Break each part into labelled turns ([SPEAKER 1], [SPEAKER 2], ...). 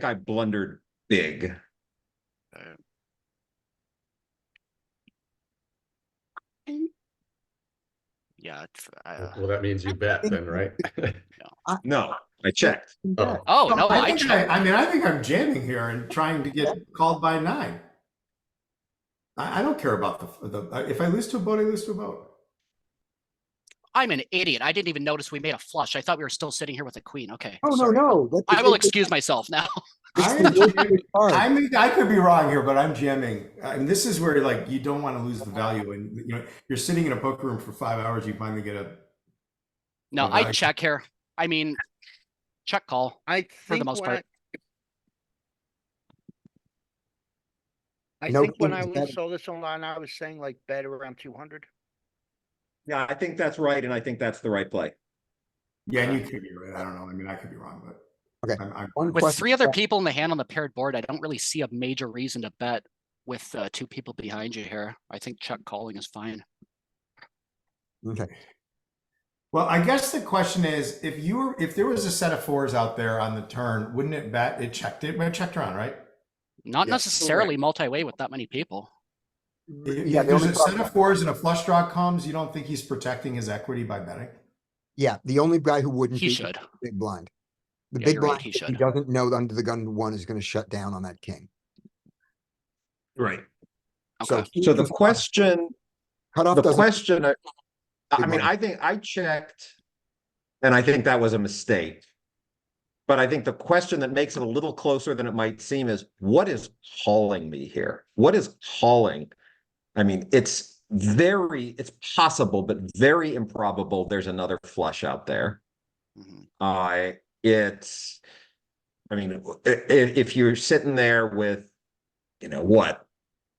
[SPEAKER 1] think I blundered big.
[SPEAKER 2] Yeah, it's,
[SPEAKER 3] Well,
[SPEAKER 2] uh,
[SPEAKER 3] well, that means you bet then, right?
[SPEAKER 1] No, I checked.
[SPEAKER 3] Oh,
[SPEAKER 2] oh,
[SPEAKER 4] No,
[SPEAKER 2] no,
[SPEAKER 4] I
[SPEAKER 2] I
[SPEAKER 4] think
[SPEAKER 2] checked.
[SPEAKER 4] I mean, I think I'm jamming here and trying to get called by nine. I, I don't care about the, the, if I lose to a boat, I lose to a boat.
[SPEAKER 2] I'm an idiot. I didn't even notice we made a flush. I thought we were still sitting here with a queen. Okay.
[SPEAKER 5] Oh, no,
[SPEAKER 2] sorry.
[SPEAKER 5] no. that's
[SPEAKER 2] I will
[SPEAKER 5] exactly-
[SPEAKER 2] excuse myself now.
[SPEAKER 5] that's
[SPEAKER 4] I
[SPEAKER 5] the
[SPEAKER 4] am
[SPEAKER 5] worst
[SPEAKER 4] jamming.
[SPEAKER 5] card.
[SPEAKER 4] I mean, I could be wrong here, but I'm jamming. And this is where like, you don't want to lose the value and, you know, you're sitting in a poker room for five hours, you finally get a,
[SPEAKER 2] No,
[SPEAKER 4] Well,
[SPEAKER 2] I
[SPEAKER 4] I-
[SPEAKER 2] check here. I mean, check call.
[SPEAKER 6] I think.
[SPEAKER 2] the most
[SPEAKER 6] when
[SPEAKER 2] part.
[SPEAKER 6] I I
[SPEAKER 5] No
[SPEAKER 6] think when
[SPEAKER 5] kings
[SPEAKER 6] I
[SPEAKER 5] betting.
[SPEAKER 6] was- saw this online, I was saying like bet around two hundred.
[SPEAKER 1] Yeah, I think that's right, and I think that's the right play.
[SPEAKER 4] yeah, and you could be right. I don't know. I mean, I could be wrong, but.
[SPEAKER 5] Okay.
[SPEAKER 4] I'm- I'm-
[SPEAKER 5] One
[SPEAKER 2] With
[SPEAKER 5] question.
[SPEAKER 2] three other people in the hand on the paired board, I don't really see a major reason to bet with uh, two people behind you here. I think check calling is fine.
[SPEAKER 5] Okay.
[SPEAKER 4] Well, I guess the question is, if you were, if there was a set of fours out there on the turn, wouldn't it bet? It checked it, it checked around, right?
[SPEAKER 2] Not
[SPEAKER 3] Yes, correct.
[SPEAKER 2] necessarily multi-way with that many people.
[SPEAKER 4] If
[SPEAKER 5] Yeah,
[SPEAKER 4] if
[SPEAKER 5] the
[SPEAKER 4] there's
[SPEAKER 5] only
[SPEAKER 4] a set
[SPEAKER 5] problem-
[SPEAKER 4] of fours and a flush draw comes, you don't think he's protecting his equity by betting?
[SPEAKER 5] yeah, the only guy who wouldn't
[SPEAKER 2] He
[SPEAKER 5] be
[SPEAKER 2] should.
[SPEAKER 5] big blind. The
[SPEAKER 2] Yeah,
[SPEAKER 5] big
[SPEAKER 2] you're right,
[SPEAKER 5] blind
[SPEAKER 2] he
[SPEAKER 5] if he
[SPEAKER 2] should.
[SPEAKER 5] doesn't know that under the gun one is going to shut down on that king.
[SPEAKER 1] Right.
[SPEAKER 5] So,
[SPEAKER 2] Okay.
[SPEAKER 5] he
[SPEAKER 1] So the
[SPEAKER 5] is
[SPEAKER 1] question,
[SPEAKER 5] cut off
[SPEAKER 1] the
[SPEAKER 5] doesn't
[SPEAKER 1] question, I I
[SPEAKER 5] Good
[SPEAKER 1] mean,
[SPEAKER 5] one.
[SPEAKER 1] I think I checked. And I think that was a mistake. But I think the question that makes it a little closer than it might seem is what is calling me here? What is calling? I mean, it's very, it's possible, but very improbable. There's another flush out there.
[SPEAKER 2] Mhm.
[SPEAKER 1] Uh, it's, I mean, i- i- if you're sitting there with, you know, what?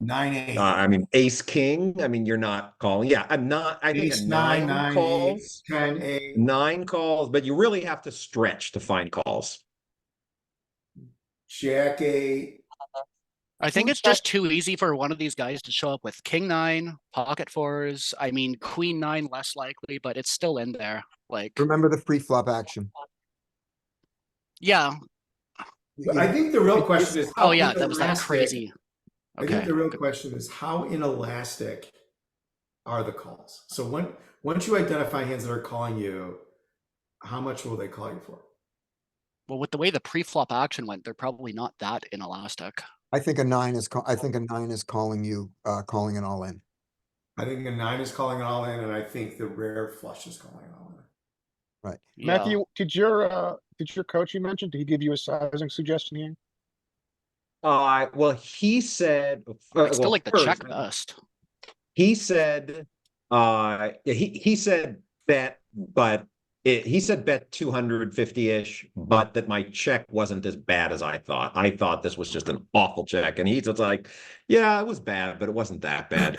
[SPEAKER 4] Nine, eight.
[SPEAKER 1] Uh, I mean, ace, king, I mean, you're not calling. Yeah, I'm not, I think
[SPEAKER 4] Ace,
[SPEAKER 1] a
[SPEAKER 4] nine,
[SPEAKER 1] nine
[SPEAKER 4] nine, eight,
[SPEAKER 1] calls,
[SPEAKER 4] ten, eight.
[SPEAKER 1] nine calls, but you really have to stretch to find calls.
[SPEAKER 4] Jack eight.
[SPEAKER 2] I think
[SPEAKER 5] Who's
[SPEAKER 2] it's just too easy for one of these guys to show up with king nine, pocket fours. I mean, queen nine less likely, but it's still in there. Like,
[SPEAKER 5] remember the free flop action.
[SPEAKER 2] yeah.
[SPEAKER 4] But I think the real question is. how
[SPEAKER 2] Oh, yeah, that was that
[SPEAKER 4] inelastic-
[SPEAKER 2] crazy.
[SPEAKER 4] I think
[SPEAKER 2] Okay.
[SPEAKER 4] the real question is how inelastic are the calls? So when, once you identify hands that are calling you, how much will they call you for?
[SPEAKER 2] Well, with the way the pre-flop action went, they're probably not that inelastic.
[SPEAKER 5] I think a nine is. Call- I think a nine is calling you, uh, calling it all in.
[SPEAKER 4] I think a nine is calling it all in, and I think the rare flush is calling it all in.
[SPEAKER 2] Yeah.
[SPEAKER 7] Matthew, did your, uh, did your coach you mentioned, did he give you a sizing suggestion here?
[SPEAKER 1] Uh, well, he said. uh,
[SPEAKER 2] I still
[SPEAKER 1] well,
[SPEAKER 2] like the check uh,
[SPEAKER 1] first,
[SPEAKER 2] best.
[SPEAKER 1] He said, uh, he, he said bet, but it, he said bet two hundred fifty-ish, but that my check wasn't as bad as I thought. I thought this was just an awful check. And he's just like, yeah, it was bad, but it wasn't that bad.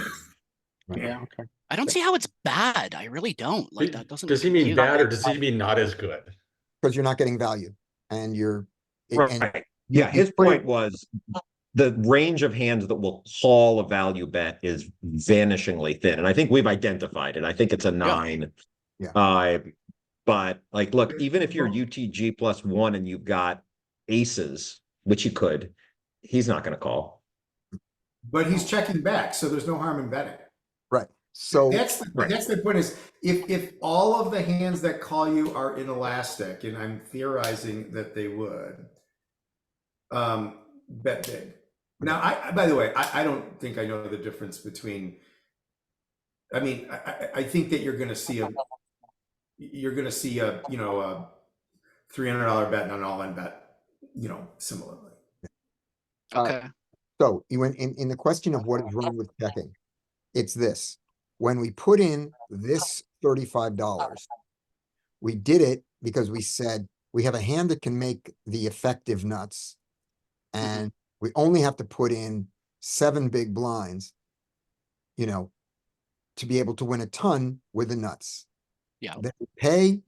[SPEAKER 7] Yeah, okay.
[SPEAKER 2] I don't see how it's bad. I really don't. Like that doesn't.
[SPEAKER 3] Does he mean
[SPEAKER 2] compute.
[SPEAKER 3] bad or does he mean not as good?
[SPEAKER 5] because you're not getting value and you're. it- and
[SPEAKER 1] Right.
[SPEAKER 5] you-
[SPEAKER 1] Yeah,
[SPEAKER 5] you
[SPEAKER 1] his
[SPEAKER 5] put
[SPEAKER 1] point
[SPEAKER 5] it-
[SPEAKER 1] was the range of hands that will call a value bet is vanishingly thin, and I think we've identified it. I think it's a nine.
[SPEAKER 5] Yeah.
[SPEAKER 1] Uh, but like, look, even if you're UTG plus one and you've got aces, which you could, he's not gonna call.
[SPEAKER 4] But
[SPEAKER 2] Oh.
[SPEAKER 4] he's checking back, so there's no harm in betting.
[SPEAKER 5] So
[SPEAKER 4] That's the,
[SPEAKER 1] Right.
[SPEAKER 4] that's the point is if if all of the hands that call you are inelastic, and I'm theorizing that they would, um, bet big. Now, I I- by the way, I, I don't think I know the difference between. I mean, I, I, I think that you're going to see a, you're going to see a you know a, three hundred dollar bet and an all in bet, you know, similarly.
[SPEAKER 5] uh,
[SPEAKER 2] Okay.
[SPEAKER 5] So you went in, in the question of what is wrong with checking, it's this. When we put in this thirty-five dollars, we did it because we said we have a hand that can make the effective nuts.
[SPEAKER 2] Mm-hmm.
[SPEAKER 5] And we only have to put in seven big blinds, you know, to be able to win a ton with the nuts.
[SPEAKER 2] Yeah.
[SPEAKER 5] Then we pay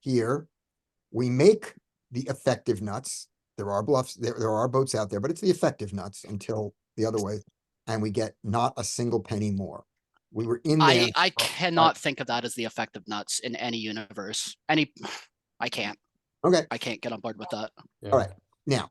[SPEAKER 5] here, we make the effective nuts, there are bluffs, there, there are boats out there, but it's the effective nuts until the other way. And we get not a single penny more. We were in there.
[SPEAKER 2] I
[SPEAKER 3] Oh,
[SPEAKER 2] I cannot think of that as the effect of nuts in any universe. Any, I can't.
[SPEAKER 5] Okay,
[SPEAKER 2] I can't get on board with that.
[SPEAKER 3] Yeah.
[SPEAKER 5] Alright. now,